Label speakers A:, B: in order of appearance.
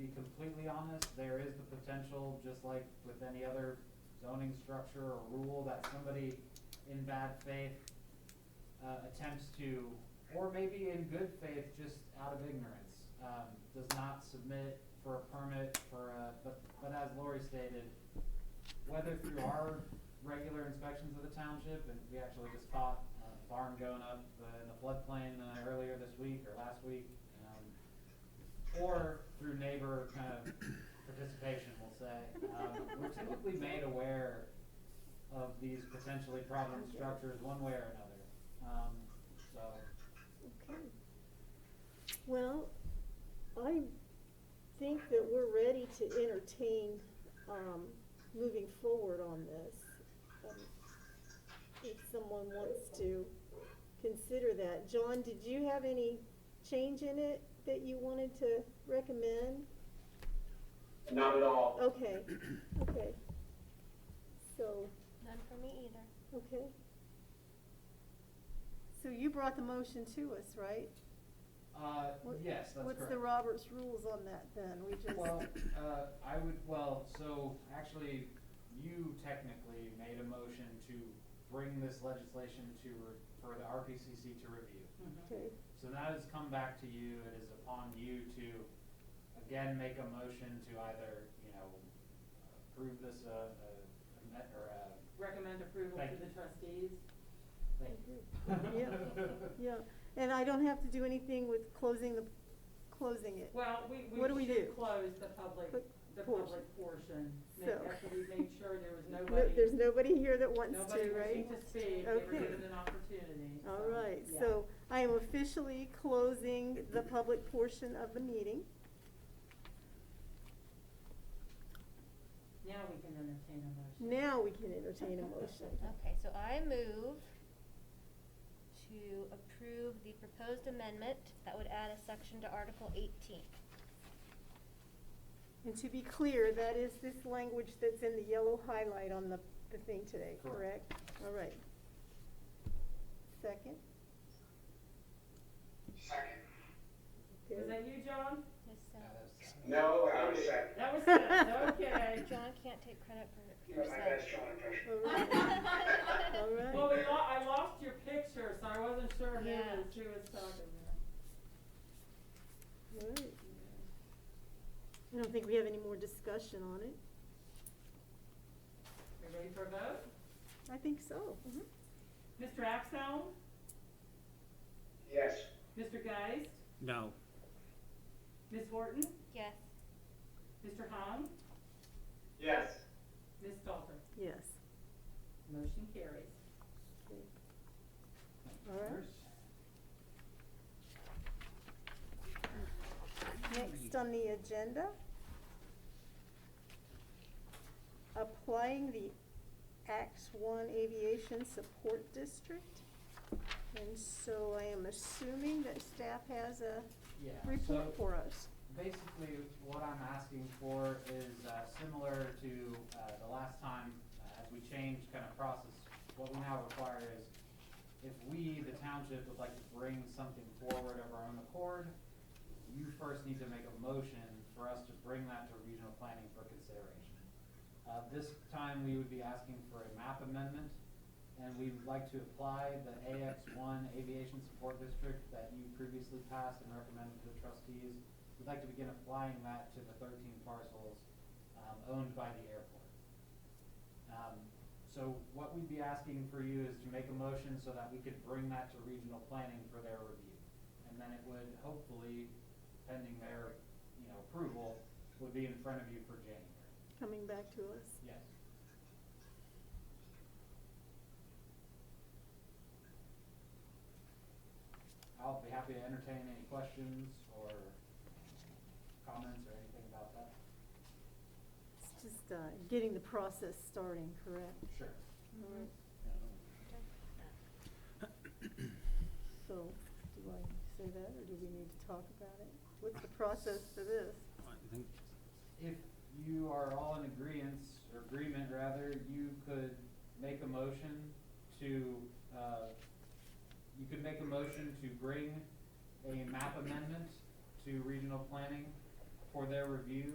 A: honest, there is the potential, just like with any other zoning structure or rule, that somebody in bad faith uh, attempts to, or maybe in good faith, just out of ignorance, um, does not submit for a permit for a, but, but as Lori stated, whether through our regular inspections of the township, and we actually just caught a barn going up uh, in the floodplain uh, earlier this week or last week, um, or through neighbor kind of participation, we'll say, um, we're typically made aware of these potentially problem structures one way or another. Um, so,
B: Okay. Well, I think that we're ready to entertain, um, moving forward on this. Um, If someone wants to consider that. John, did you have any change in it that you wanted to recommend?
C: Not at all.
B: Okay, okay. So,
D: None for me either.
B: okay. So you brought the motion to us, right?
A: uh,
B: What-
A: yes, that's correct.
B: What's the Roberts rules on that then? We just.
A: Well, uh, I would, well, so actually, you technically made a motion to bring this legislation to, re- for the RPCC to review.
B: Okay,
A: So that has come back to you, it is upon you to, again, make a motion to either, you know, approve this, uh, uh, amend- or, uh,
E: Recommend approval
A: Thank
E: to the trustees.
A: thank
B: Yeah. yeah, and I don't have to do anything with closing the, closing it.
E: Well, we, we
B: What do we do?
E: should close the public,
B: But-
E: the
B: portion.
E: public portion. Make,
B: So-
E: after we made sure there was
B: No-
E: nobody,
B: There's nobody here that wants to,
E: nobody
B: right?
E: wishing to speak, they were
B: Okay.
E: given an opportunity. so,
B: All right,
E: yeah.
B: so I am officially closing the public portion of the meeting.
E: Now we can entertain a motion.
B: Now we can entertain a motion.
D: Okay, so I move to approve the proposed amendment that would add a section to Article eighteen.
B: And to be clear, that is this language that's in the yellow highlight on the, the thing today,
A: Correct.
B: correct? All right. Second?
C: Second.
E: Was that you, John?
D: Yes, uh,
C: No, I was second.
E: That was Seth, okay.
D: John can't take credit for
C: You were my best
D: herself.
C: John impression.
B: All right, all right.
E: Well, we lo- I lost your picture, so I wasn't sure who
D: Yeah.
E: was, who was talking there.
B: All right. I don't think we have any more discussion on it.
E: We ready for a vote?
B: I think so.
E: Mr. Axell?
C: Yes.
E: Mr. Geist?
F: No.
E: Ms. Horton?
D: Yes,
E: Mr. Hahn?
C: Yes.
E: Ms. Stalter?
B: Yes.
E: Motion carries.
B: All right. Next on the agenda, applying the Acts One Aviation Support District. And so I am assuming that staff has a
A: Yeah, so
B: report for us.
A: basically what I'm asking for is uh, similar to uh, the last time, uh, as we changed kind of process, what we now require is if we, the township, would like to bring something forward of our own accord, you first need to make a motion for us to bring that to regional planning for consideration. Uh, This time, we would be asking for a map amendment, and we would like to apply the AX one aviation support district that you previously passed and recommended to the trustees. We'd like to begin applying that to the thirteen parcels um, owned by the airport. Um, So what we'd be asking for you is to make a motion so that we could bring that to regional planning for their review. And then it would hopefully, pending their, you know, approval, would be in front of you for January.
B: coming back to us.
A: Yes. I'll be happy to entertain any questions or comments or anything about that.
B: It's just, uh, getting the process starting, correct?
A: Sure.
B: All right.
D: Mm-hmm.
B: So, do I say that, or do we need to talk about it? What's the process for this?
F: I think
A: If you are all in agreeance, or agreement rather, you could make a motion to, uh, you could make a motion to bring a map amendment to regional planning for their review